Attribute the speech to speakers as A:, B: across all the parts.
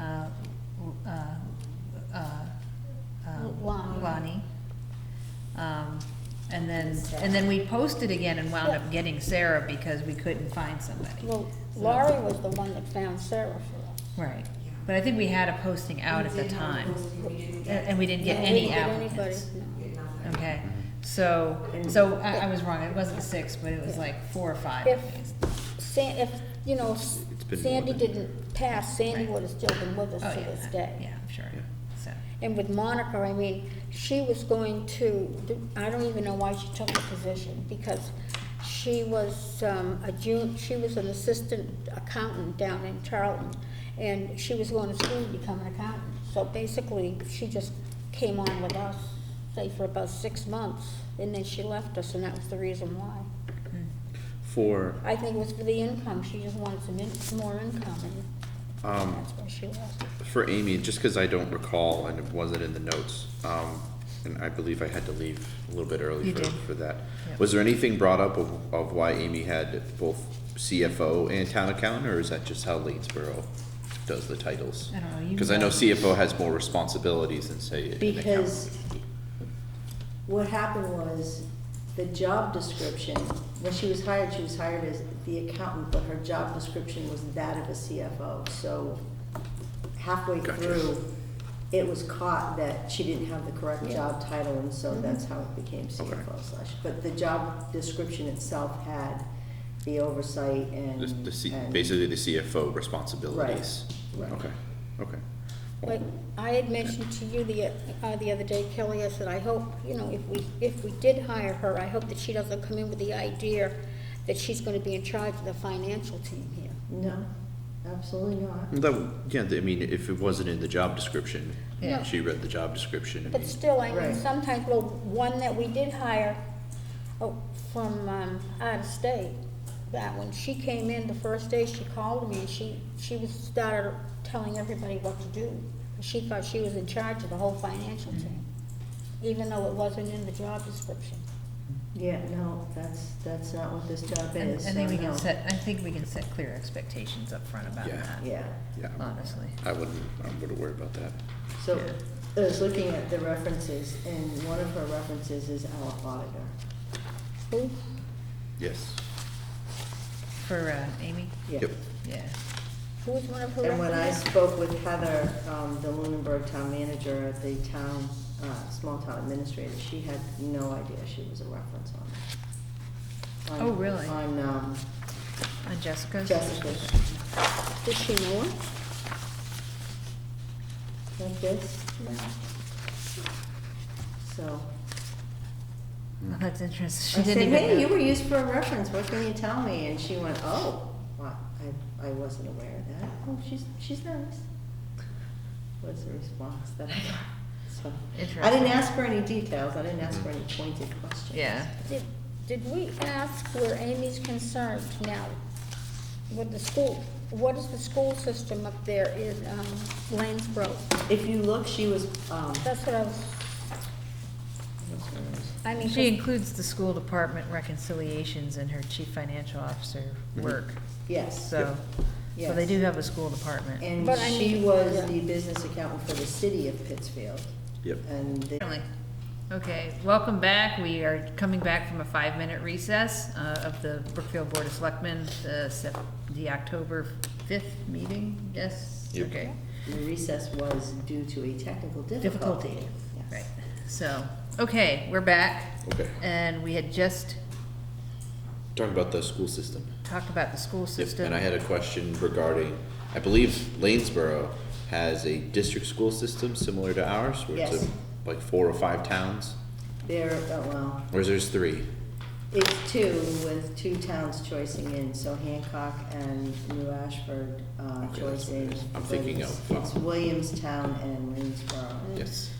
A: uh, uh,
B: Sarah.
A: Um, And then we posted again and wound up getting Sarah because we couldn't find somebody.
B: Well, Laurie was the one that found Sarah for us.
A: Right, but I think we had a posting out at the time, and and we didn't get
B: No, we
A: any
B: didn't get anybody,
A: applicants.
B: no.
A: Okay, so, so I, I was wrong, it wasn't six, but it was
B: Yeah.
A: like four or five.
B: If,
A: I think.
B: San, if, you know,
C: It's been more
B: Sandy
C: than-
B: didn't pass, Sandy
A: Right.
B: would have still been with
A: Oh,
B: us to
A: yeah,
B: this
A: I-
B: day.
A: Yeah, I'm sure,
C: Yeah.
A: so,
B: And with Monica, I mean, she was going to, I don't even know why she took the position, because she was, um, a June, she was an assistant accountant down in Charlton, and she was going to school to become an accountant. So basically, she just came on with us, say, for about six months, and then she left us, and that was the reason why.
C: For,
B: I think it was for the income, she just wanted some in, more income, and
C: um,
B: that's where she was.
C: for Amy, just because I don't recall and it wasn't in the notes, um, and I believe I had to leave a little bit early
A: You
C: for,
A: did.
C: for that.
A: Yep.
C: Was there anything brought up of, of why Amy had both CFO and town accountant, or is that just how Leedsboro does the titles?
A: I don't know, you.
C: Because I know CFO has more responsibilities than say an accountant.
D: Because what happened was, the job description, when she was hired, she was hired as the accountant, but her job description was that of a CFO, so halfway
C: Gotcha.
D: through, it was caught that she didn't have the correct job title, and so
C: Mm-hmm.
D: that's how it became CFO slash, but the job description itself had the oversight and.
C: The, the C,
D: and-
C: basically the CFO responsibilities.
D: right.
C: Okay, okay. Well,
B: But I had mentioned to you the, uh, the other day, Kelly, I said, I hope, you know, if we, if we did hire her, I hope that she doesn't come in with the idea that she's gonna be in charge of the financial team here.
D: No, absolutely not.
C: That, yeah, I mean, if it wasn't in the job description,
A: Yeah.
C: she read the job description, I
B: But
C: mean-
B: still, I mean,
D: Right.
B: sometimes, well, one that we did hire, oh, from, um, out of state, that when she came in the first day, she called me, and she, she was, started telling everybody what to do. She thought she was in charge of the whole financial team, even though it wasn't in the job description.
D: Yeah, no, that's, that's not what this job
A: And
D: is,
A: I
D: so
A: think we can
D: no.
A: set, I think we can set clear expectations up front about
C: Yeah.
A: that,
D: Yeah,
C: Yeah,
A: honestly.
C: I wouldn't, I wouldn't worry about that.
D: so I was looking at the references, and one of her references is our auditor.
B: Who?
C: Yes.
A: For, uh, Amy,
D: Yeah.
C: Yep.
A: yeah,
B: Who was one of her?
D: And when I
B: references?
D: spoke with Heather, um, the Lunenburg town manager at the town, uh, small town administrator, she had no idea she was a reference on that. On-
A: Oh, really?
D: On, um,
A: on Oh, Jessica's.
D: Jessica's,
B: Did she know it?
D: like this, so.
A: Well, that's interesting,
D: I
A: she didn't
D: said,
A: even know.
D: hey, you were used for a reference, what can you tell me? And she went, oh, wow, I, I wasn't aware of that. Oh, she's, she's nice. Was the response that I got, so. I
A: Interesting.
D: didn't ask for any details, I didn't ask for any pointed questions.
A: Yeah.
B: Did, did we ask where Amy's concerned now? With the school, what is the school system up there in, um, Lanesboro?
D: If you look, she was, um,
B: That's what I was,
D: what's her name?
B: I mean,
A: She
B: 'cause
A: includes the school department reconciliations in her chief financial officer
C: Mhm.
A: work,
D: yes,
A: so, so they
D: Yes.
A: do have a school department.
D: and
B: But I
D: she
B: mean-
D: was
B: Yeah.
D: the business accountant for the city of Pittsfield,
C: Yep.
D: and they.
A: Okay, welcome back, we are coming back from a five-minute recess uh, of the Brookfield Board of Selectmen, the Sep, the October fifth meeting, yes?
C: Yep.
A: Okay.
D: The recess was due to a technical difficulty.
A: Difficulty,
D: Yes.
A: right, so, okay, we're back.
C: Okay.
A: And we had just
C: Talking about the school system.
A: talked about the school
C: Yep,
A: system.
C: And I had a question regarding, I believe Lanesboro has a district school system similar to ours, where it's a-
D: Yes.
C: like four or five towns,
D: There, oh, well,
C: or is there's three?
D: It's two with two towns choicing in, so Hancock and New Ashford uh,
C: Okay, that's what
D: choicing.
C: it is. I'm thinking
D: but
C: of,
D: it's- It's
C: um,
D: Williamstown and Lanesboro.
C: Yes.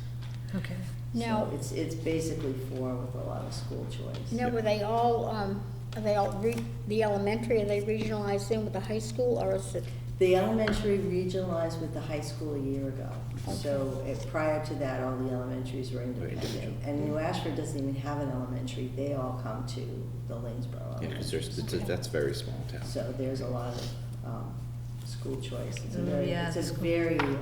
A: Okay,
B: Now-
D: So it's, it's basically four with a lot of school choice.
B: now were they all, um, are they all re, the elementary, are they regionalized in with the high school or is it?
D: The elementary regionalized with the high school a year ago. So it- prior to that, all the elementaries were independent.
C: individual.
D: And New Ashford doesn't even have an elementary, they all come to the Lanesboro.
C: Yeah, because there's, it's a-
B: Okay.
C: that's a very small town.
D: So there's a lot of um, school choice. It's a
A: Oh,
D: very,
A: yeah,
D: it's
A: the
D: a
A: school-
D: very